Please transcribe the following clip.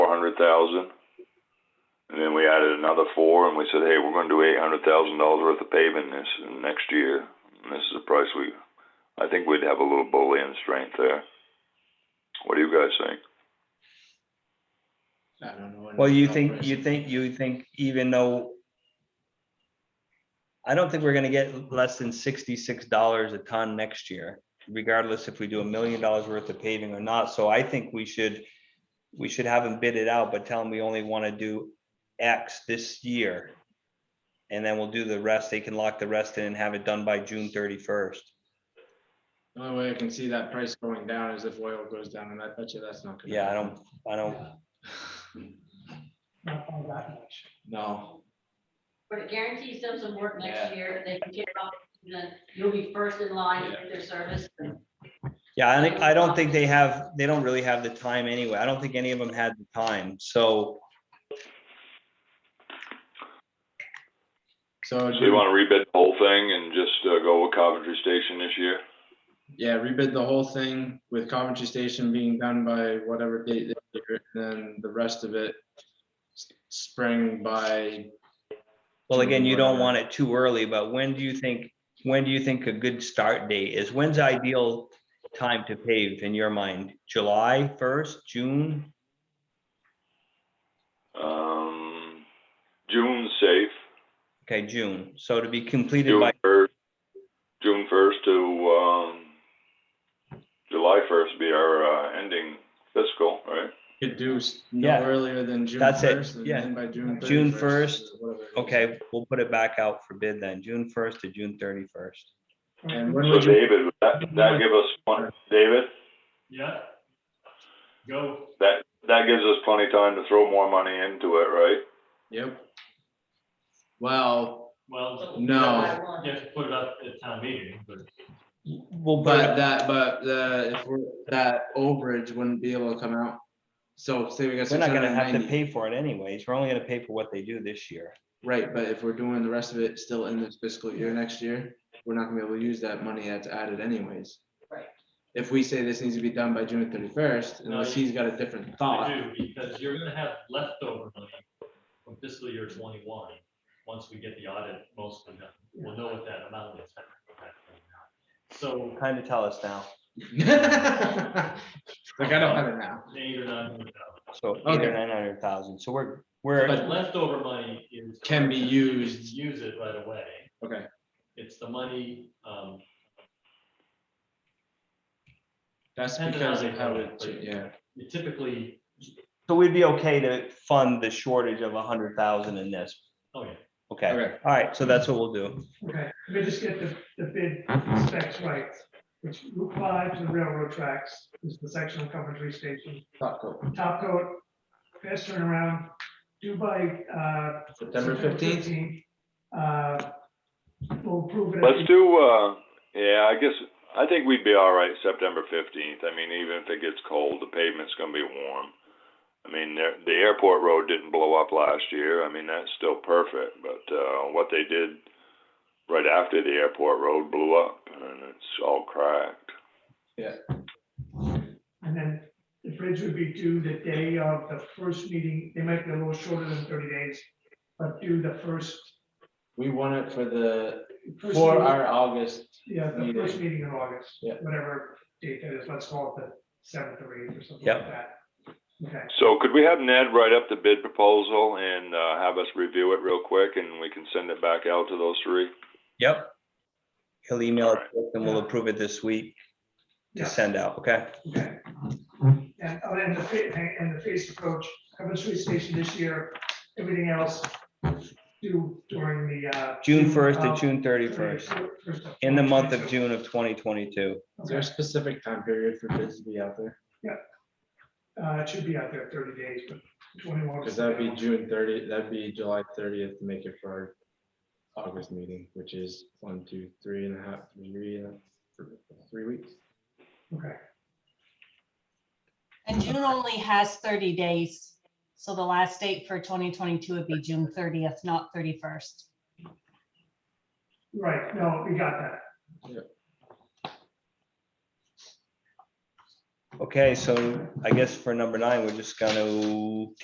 hundred thousand. And then we added another four and we said, hey, we're gonna do eight hundred thousand dollars worth of paving this next year. And this is the price we, I think we'd have a little bullion strength there. What do you guys think? I don't know. Well, you think, you think, you think even though I don't think we're gonna get less than sixty-six dollars a ton next year, regardless if we do a million dollars worth of paving or not. So I think we should, we should have them bid it out, but tell them we only wanna do X this year. And then we'll do the rest. They can lock the rest in and have it done by June thirty-first. The only way I can see that price going down is if oil goes down, and I bet you that's not. gonna Yeah, I happen. don't, I don't, Not by that much. No, But it guarantees them some work next Yeah. year, they can get up, and then you'll be first in line to get their service. Yeah, I think, I don't think they have, they don't really have the time anyway. I don't think any of them had the time, so. so, So you wanna rebid the whole thing and just, uh, go with Coventry Station this year? yeah, rebid the whole thing with Coventry Station being done by whatever date, they do it, and then the rest of it s- spring by, Well, again, you don't want it too early, but when do you think, when do you think a good start date is? When's the ideal time to pave in your mind? July first, June? Um, June's safe, Okay, June. So to be completed June by, first, June first to, um, July first be our, uh, ending fiscal, right? could do s- no Yeah. earlier than June That's it, first. and yeah. then By June. June 31st, or whatever it is. okay, we'll put it back out for bid then, June first to June thirty-first. And when So would you, David, would that, that give us, plen- David, Yeah. Go. that, that gives us plenty of time to throw more money into it, right? yep. Well, Well, No. you have to put it up at town meeting, but Well, but that, but the, if we're, that overage wouldn't be able to come out. So say we got We're six not hundred gonna and have to ninety, pay for it anyways. We're only gonna pay for what they do this year. right, but if we're doing the rest of it still in this fiscal year next year, we're not gonna be able to use that money that's added anyways. Right. If we say this needs to be done by June thirty-first, No, unless you- he's got a different thought, I do, because you're gonna have leftover money from fiscal year twenty-one, once we get the audit mostly done. We'll know what that amount is. So Kind of tell us now. Like, I don't have it now. eight or nine hundred thousand. So eight Okay. or nine hundred thousand, so we're, we're, But- But leftover money is. Can be used. Use it right away. Okay, It's the money, um, that's Depending because on of the how economy, it, but- yeah, you typically, so we'd be okay to fund the shortage of a hundred thousand in this. oh yeah, Okay, okay, all right, so that's what we'll do. Okay, let me just get the, the bid specs right, which Route five to the railroad tracks is the section of Coventry Station. thought cool. Top coat, fast turnaround, due by, uh. September fifteenth, 15th. Uh, We'll prove it. Let's do, uh, yeah, I guess, I think we'd be all right September fifteenth. I mean, even if it gets cold, the pavement's gonna be warm. I mean, the, the airport road didn't blow up last year. I mean, that's still perfect, but, uh, what they did right after the airport road blew up and it's all cracked. And then the bridge would be due the day of the first meeting. They might be a little shorter than thirty days, but due the first. we want it for the, first for meeting- our August Yeah, the first meeting. meeting in August, Yeah. whatever date that is, let's call it the seventh or eighth or something Yep. like that. Okay, So could we have Ned write up the bid proposal and, uh, have us review it real quick and we can send it back out to those three? Yep. He'll email it Alright. to us and we'll approve it this week to yeah, send out, okay? okay. And, oh, and the, fa- and the phased approach, Coventry Street Station this year, everything else due during the, uh. June first to of- June thirty-first, first in the month of 2022. June of twenty twenty-two. Is there a specific time period for bids to be out there? Uh, it should be out there thirty days, but twenty-one. Because that'd be June thirty, that'd be July thirtieth to make it for our August meeting, which is one, two, three and a half, three, and a- three weeks. Okay, And June only has thirty days, so the last date for twenty twenty-two would be June thirtieth, not thirty-first. right, no, we got that. Okay, so I guess for number nine, we're just gonna